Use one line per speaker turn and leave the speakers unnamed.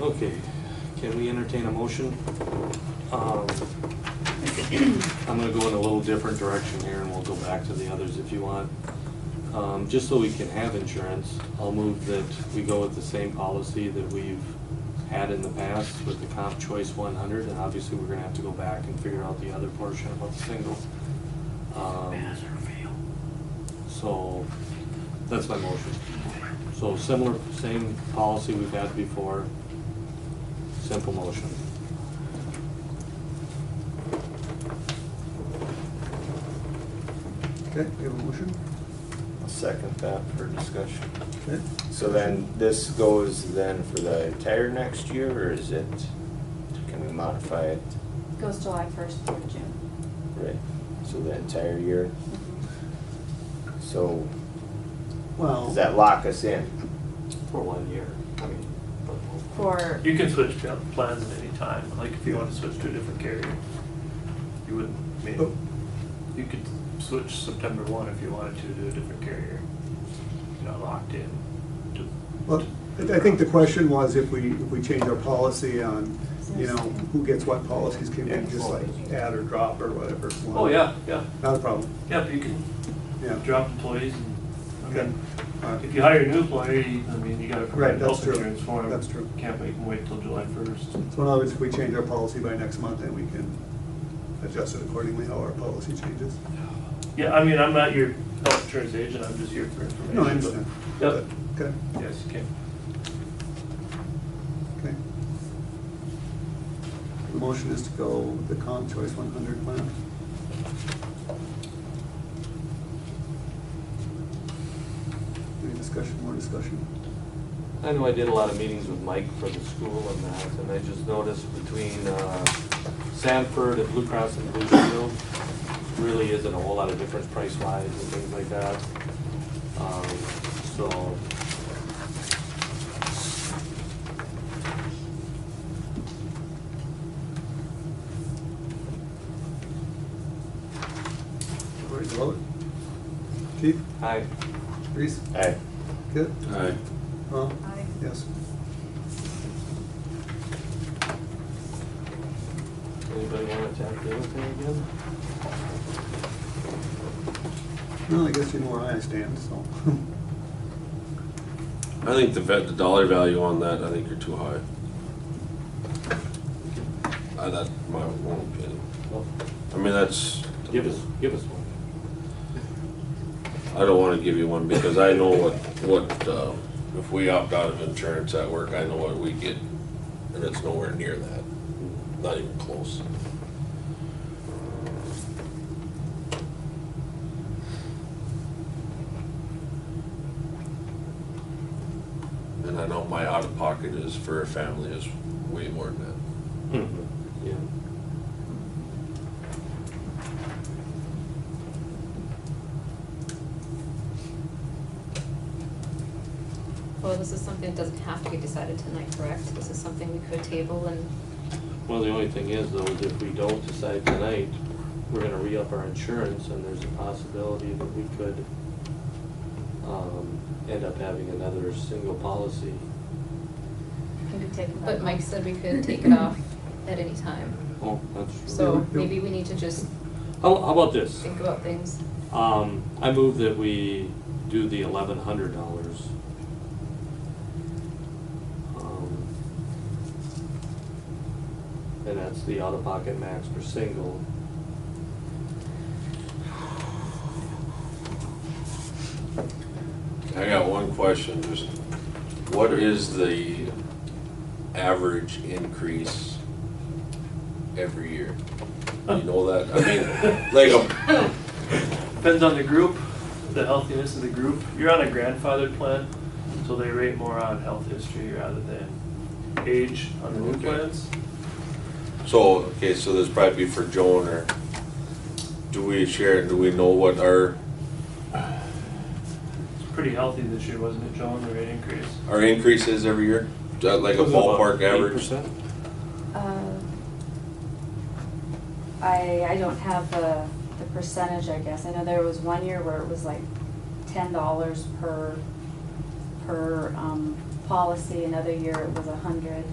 Okay, can we entertain a motion? Um, I'm gonna go in a little different direction here, and we'll go back to the others if you want. Um, Just so we can have insurance, I'll move that we go with the same policy that we've had in the past with the comp choice one hundred, and obviously, we're gonna have to go back and figure out the other portion about the single. Um, So, that's my motion. So similar, same policy we've had before. Simple motion.
Okay, we have a motion.
I'll second that for discussion.
Okay.
So then, this goes then for the entire next year, or is it, can we modify it?
Goes July first through June.
Right, so the entire year, so does
Well,
that lock us in?
For one year. I mean, but-
For,
You can switch pl- plans at any time, like if you want to switch to a different carrier. You wouldn't, I
Oh.
mean, you could switch September one if you wanted to to a different carrier. You're not locked in to.
Well, I I think the question was if we, if we change our policy on, you know, who gets what policies, can we just like add or drop or whatever?
Oh, yeah, yeah,
Not a problem,
yeah, but you can
yeah.
drop employees and, I
Okay.
mean,
All right.
if you hire a new employee, I mean, you gotta
Right,
provide
that's
health
true.
insurance for them.
That's true.
Can't make them wait till July first.
So in other words, if we change our policy by next month, then we can adjust it accordingly, how our policy changes.
Yeah, I mean, I'm not your health insurance agent, I'm just here for information.
No, I
but-
understand.
Yep,
Okay,
yes, you can.
okay. The motion is to go with the comp choice one hundred plan. Any discussion, more discussion?
I know I did a lot of meetings with Mike for the school and that, and I just noticed between uh, Sanford and Blue Cross and Blue Shield, really isn't a whole lot of difference price wise and things like that. Um, So.
Ready to vote? Keith,
Hi.
Reese,
Aye.
Kit,
Aye.
Ron?
Aye.
Yes.
Anybody want to tap the other thing again?
Well, I guess you know where I stand, so.
I think the vet, the dollar value on that, I think you're too high. Uh, that's my own opinion.
Well,
I mean, that's.
Give us, give us one.
I don't wanna give you one because I know what, what, uh, if we opt out of insurance at work, I know what we get. And it's nowhere near that, not even close. And I know my out of pocket is for a family is way more than that.
Yeah.
Well, this is something that doesn't have to be decided tonight, correct? This is something we could table and,
Well, the only thing is though, is if we don't decide tonight, we're gonna re-up our insurance and there's a possibility that we could um, end up having another single policy.
can be taken by.
but Mike said we could take it off at any time.
Oh, that's true.
So maybe we need to just
How, how about this?
think about things.
Um, I move that we do the eleven hundred dollars. Um, And that's the out-of-pocket max for single.
I got one question, just what is the average increase every year? You know that, I mean, like, um, a-
Depends on the group, the healthiness of the group. You're on a grandfathered plan, so they rate more on health history rather than age on the new
Okay.
plans.
so, okay, so this probably be for Joan or do we share, do we know what our,
It's pretty healthy this year, wasn't it, John, the rate increase?
our increase is every year? Is that like a ballpark average?
8%?
Uh, I, I don't have the, the percentage, I guess. I know there was one year where it was like ten dollars per, per, um, policy. Another year it was a hundred.